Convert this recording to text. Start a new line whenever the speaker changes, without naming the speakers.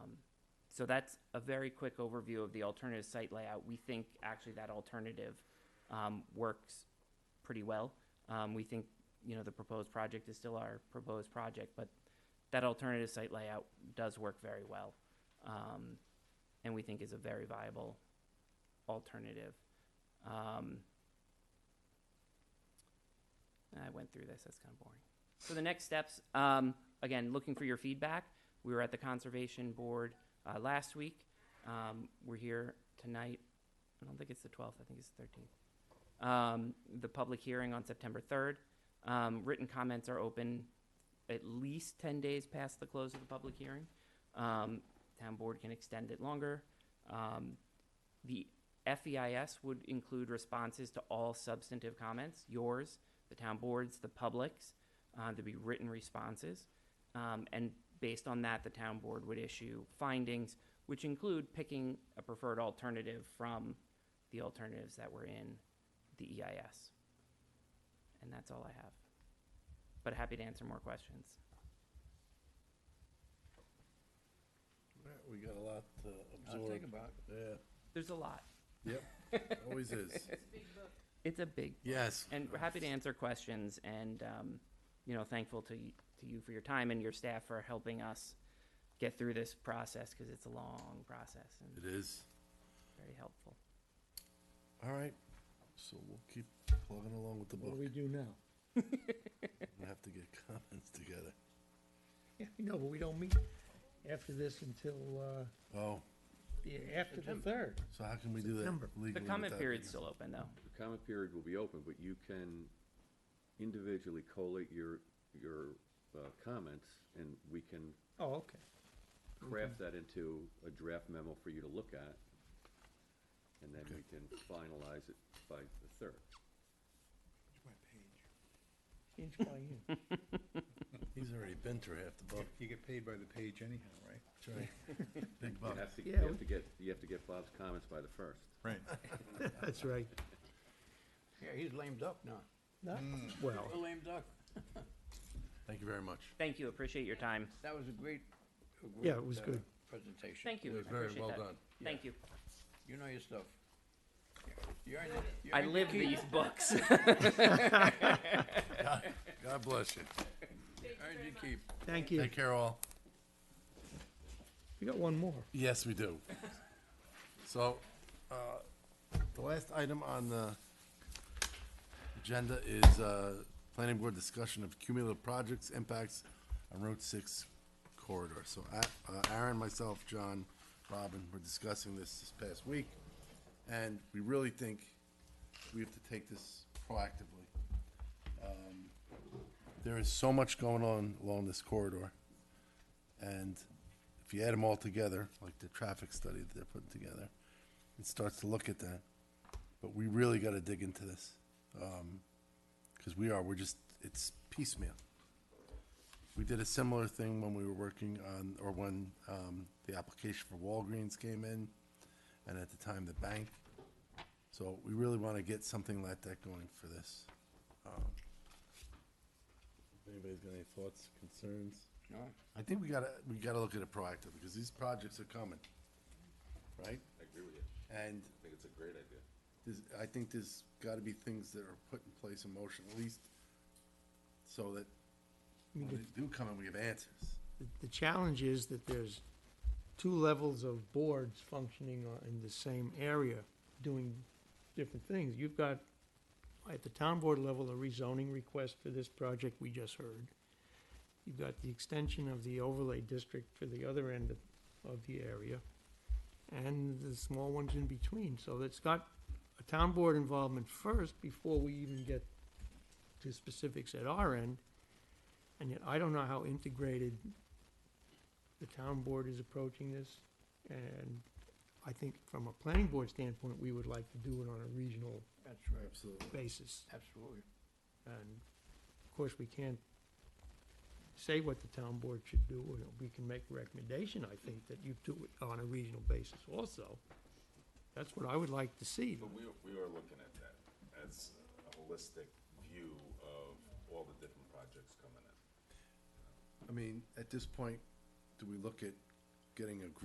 So that's a very quick overview of the alternative site layout. We think actually that alternative um, works pretty well. Um, We think, you know, the proposed project is still our proposed project, but that alternative site layout does work very well. um, And we think is a very viable alternative. Um, I went through this, that's kind of boring. So the next steps, um, again, looking for your feedback. We were at the Conservation Board uh, last week. Um, We're here tonight. I don't think it's the 12th, I think it's the 13th um, the public hearing on September 3rd. Um, written comments are open at least 10 days past the close of the public hearing. Um, town board can extend it longer. Um, the FEIS would include responses to all substantive comments, yours, the town board's, the public's. Uh, there'd be written responses. Um, and based on that, the town board would issue findings, which include picking a preferred alternative from the alternatives that were in the EIS. And that's all I have. But happy to answer more questions.
All right, We got a lot to
I'll think
absorb.
about it.
Yeah,
There's a lot.
yep, always is.
It's a big,
Yes.
and we're happy to answer questions and, um, you know, thankful to, y- to you for your time and your staff for helping us get through this process because it's a long process and
It is.
very helpful.
All right, so we'll keep plugging along with the
What
book.
do we do now?
We have to get comments together.
Yeah, I know, but we don't meet after this until, uh,
Oh,
the- after the third.
so how can we do that
September.
legally?
The comment
without-
period's still open though.
The comment period will be open, but you can individually collate your, your uh, comments, and we can
Oh, okay.
craft that into a draft memo for you to look at, and then we can finalize it by the third.
Inch by inch.
He's already been through half the book.
You get paid by the page anyhow, right?
That's right. Big
You
buck.
have to, you
Yeah,
have
we-
to get, you have to get Bob's comments by the first.
Right.
That's right.
Yeah, he's lame duck now.
No? Well,
A lame duck.
Thank you very much.
Thank you, appreciate your time.
That was a great, a great.
Yeah, it was
uh,
good.
Presentation.
Thank you, I
was very
appreciate
well
that.
done.
Thank you.
You know your stuff. You earned it. You
I
earned
live
your keep.
these books.
God bless you.
Earned your keep.
thank you.
Take care all.
We got one more.
Yes, we do. So, uh, the last item on the agenda is uh, planning board discussion of cumulative projects impacts on Route 6 corridor. So A- uh, Aaron, myself, John, Robin, were discussing this this past week, and we really think we have to take this proactively. Um, There is so much going on along this corridor. And if you add them all together, like the traffic study that they're putting together, it starts to look at that. But we really gotta dig into this. Um 'cause cause we are, we're just, it's piecemeal. We did a similar thing when we were working on, or when, um, the application for Walgreens came in, and at the time, the bank. So we really wanna get something like that going for this. Um, if Anybody's got any thoughts, concerns?
No,
I think we gotta, we gotta look at it proactive, because these projects are coming, right?
I agree with you. I
And
think it's a great idea.
there's, I think there's gotta be things that are put in place in motion, at least, so that when they do come in, we have answers.
The- The challenge is that there's two levels of boards functioning on- in the same area, doing different things. You've got, at the town board level, a rezoning request for this project we just heard. You've got the extension of the overlay district for the other end of, of the area, and the small ones in between. So it's got a town board involvement first before we even get to specifics at our end. And yet, I don't know how integrated the town board is approaching this. And I think from a planning board standpoint, we would like to do it on a regional
that's right.
Absolutely.
basis.
Absolutely.
And of course, we can't say what the town board should do, or we can make a recommendation, I think, that you do it on a regional basis also. That's what I would like to see.
But we, we are looking at that as a holistic view of all the different projects coming in.
I mean, at this point, do we look at getting a